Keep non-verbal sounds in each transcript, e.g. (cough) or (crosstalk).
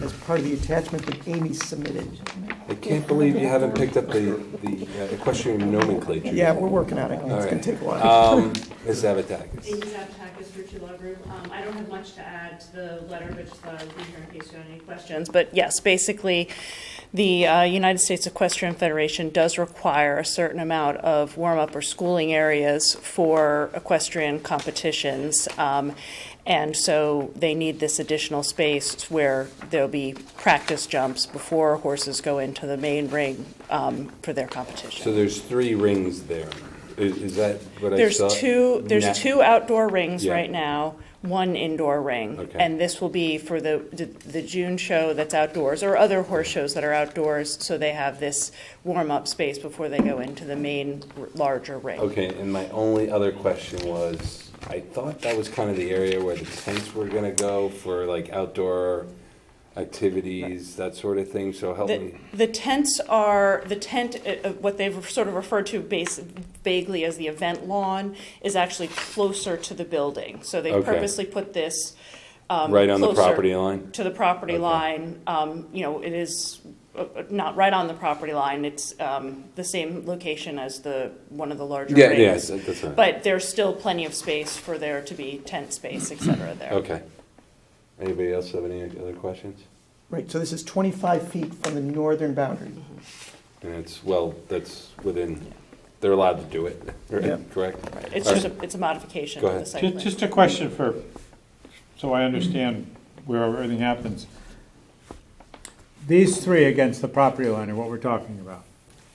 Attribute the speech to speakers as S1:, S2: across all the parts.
S1: as part of the attachment that Amy submitted.
S2: I can't believe you haven't picked up the, the uh, equestrian nomenclature.
S1: Yeah, we're working on it.
S2: All
S1: It's
S2: right.
S1: gonna take a while.
S2: Um, Ms. Zavatakis.
S3: Amy Zapatakis, Virtue Law Group. Um, I don't have much to add to the letter, but just thought I'd be here in case you had any questions. But yes, basically, the uh, United States Equestrian Federation does require a certain amount of warm-up or schooling areas for equestrian competitions. Um, And so they need this additional space where there'll be practice jumps before horses go into the main ring um, for their competition.
S2: So there's three rings there. I- Is that what I
S3: There's
S2: saw?
S3: two,
S2: Na-
S3: there's two outdoor rings
S2: Yeah.
S3: right now, one indoor ring.
S2: Okay.
S3: And this will be for the, the- the June show that's outdoors, or other horse shows that are outdoors, so they have this warm-up space before they go into the main r- larger ring.
S2: Okay, and my only other question was, I thought that was kind of the area where the tents were gonna go for like outdoor activities, that sort of thing, so help
S3: The,
S2: me.
S3: the tents are, the tent, uh, uh, what they've sort of referred to base, vaguely as the event lawn, is actually closer to the building. So they
S2: Okay.
S3: purposely put this, um,
S2: Right on the
S3: closer.
S2: property line?
S3: to the property
S2: Okay.
S3: line. Um, You know, it is uh, uh, not right on the property line. It's um, the same location as the, one of the larger
S2: Yeah, yeah,
S3: rings.
S2: that- that's right.
S3: But there's still plenty of space for there to be tent space, et cetera, there.
S2: Okay. Anybody else have any other questions?
S1: Right, so this is 25 feet from the northern boundary.
S2: And it's, well, that's within, they're allowed to do it, (laughs)
S1: Yeah.
S2: right? correct?
S3: It's just, a it's a modification
S2: Go
S3: of the
S2: ahead.
S3: site
S4: Ju-
S3: plan.
S4: Just a question for, so I understand where everything happens. These three against the property line are what we're talking about,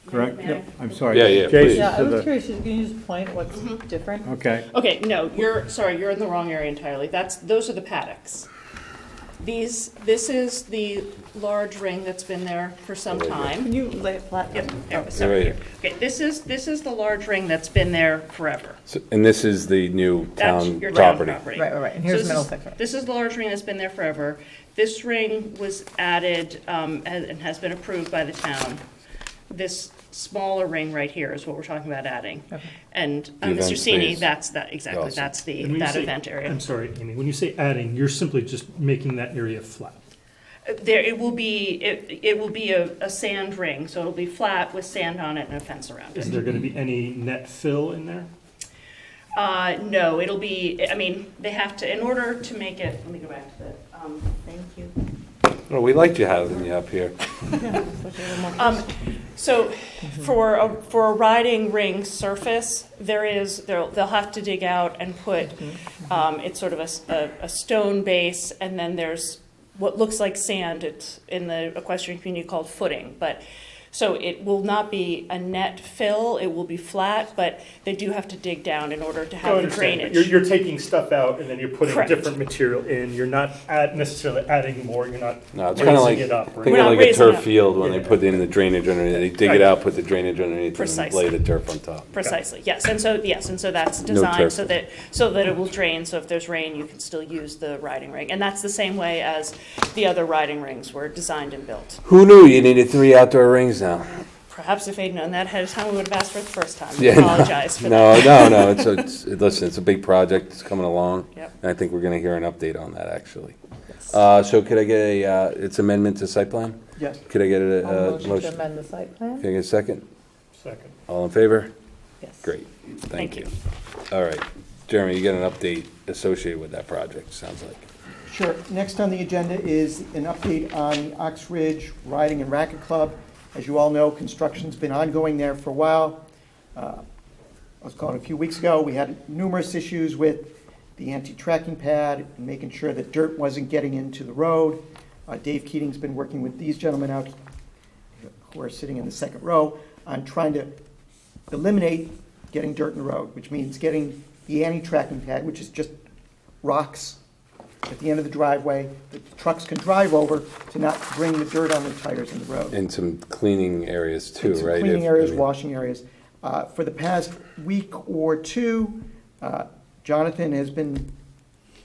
S4: correct?
S3: May I-
S4: I'm sorry.
S2: Yeah, yeah,
S4: Jason
S2: please.
S5: Yeah, I
S4: to
S5: was
S4: the-
S5: curious, can you just point what's different?
S4: Okay,
S3: Okay, no, you're, sorry, you're in the wrong area entirely. That's, those are the paddocks. These, this is the large ring that's been there for some
S2: Right here.
S3: time.
S5: Can you lay it flat?
S3: Yep, there we
S2: Right
S3: go.
S2: here.
S3: Okay, this is, this is the large ring that's been there forever.
S2: So- And this is the new
S3: That's
S2: town
S3: your town
S2: property?
S3: property.
S5: Right, right, right. And
S3: So
S5: here's
S3: this
S5: middle
S3: is-
S5: picture.
S3: This is the large ring that's been there forever. This ring was added um, and and has been approved by the town. This smaller ring right here is what we're talking about adding. And uh,
S2: The event
S3: Mr. Sini,
S2: space.
S3: that's, that, exactly,
S2: Awesome.
S3: that's the,
S6: And when you
S3: that
S6: say-
S3: event area.
S6: I'm sorry, Amy, when you say adding, you're simply just making that area flat.
S3: Uh, There, it will be, it it will be a a sand ring, so it'll be flat with sand on it and a fence around it.
S6: Is there gonna be any net fill in there?
S3: Uh, no, it'll be, I mean, they have to, in order to make it, let me go back to the, um, thank you.
S2: Well, we liked you having you up here.
S3: Um, so for a, for a riding ring surface, there is, they'll, they'll have to dig out and put, um, it's sort of a s- a, a stone base, and then there's what looks like sand, it's in the equestrian community called footing, but, so it will not be a net fill, it will be flat, but they do have to dig down in order to have the drainage.
S6: You're, you're taking stuff out and then you're putting
S3: Correct.
S6: different material in. You're not add, necessarily adding more, you're not
S2: No, it's
S6: raising
S2: kind of like,
S6: it up. or
S2: think
S3: We're
S2: of
S3: not
S2: like a
S3: raising it
S2: turf
S3: up.
S2: field when they
S6: Yeah.
S2: put in the drainage underneath. They dig it
S6: Right.
S2: out, put the drainage underneath, and then lay
S3: Precisely.
S2: the turf on top.
S3: Precisely, yes, and so, yes, and so that's
S2: No
S3: designed
S2: turf.
S3: so that, so that it will drain, so if there's rain, you can still use the riding ring. And that's the same way as the other riding rings were designed and built.
S2: Who knew you needed three outdoor rings now?
S3: Perhaps if they'd known that ahead of time, we would have asked for it the first time. We
S2: Yeah, no,
S3: apologize for that.
S2: No, no, no. It's, a- it's it- listen. It's a big project. It's coming along,
S3: Yep.
S2: and I think we're going to hear an update on that actually.
S3: Yes.
S2: Uh, so, could I get a uh, its amendment to site plan?
S1: Yes.
S2: Could I get a,
S5: I'll
S2: uh
S5: motion to
S2: motion?
S5: amend the site
S2: Can I
S5: plan?
S2: get a second?
S6: Second.
S2: All in favor?
S5: Yes.
S2: Great. Thank,
S3: Thank
S2: you.
S3: you.
S2: All right, Jeremy, you get an update associated with that project. Sounds like.
S1: Sure. Next on the agenda is an update on the Ox Ridge Riding and Racket Club. As you all know, construction's been ongoing there for a while. Uh, I was calling a few weeks ago, we had numerous issues with the anti-tracking pad, and making sure that dirt wasn't getting into the road. Uh, Dave Keating's been working with these gentlemen out, who are sitting in the second row, on trying to eliminate getting dirt in the road, which means getting the anti-tracking pad, which is just rocks at the end of the driveway that trucks can drive over to not bring the dirt on their tires in the road.
S2: And some cleaning areas too,
S1: Some
S2: right? If-
S1: Cleaning
S2: I
S1: areas,
S2: mean-
S1: washing areas. Uh, For the past week or two, uh, Jonathan has been,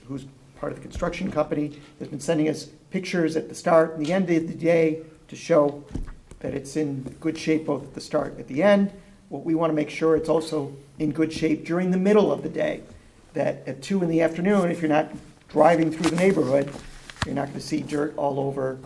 S1: who's part of the construction company, has been sending us pictures at the start and the end of the day to show that it's in good shape both at the start and at the end. What we want to make sure it's also in good shape during the middle of the day, that at two in the afternoon, if you're not driving through the neighborhood, you're not going to see dirt all over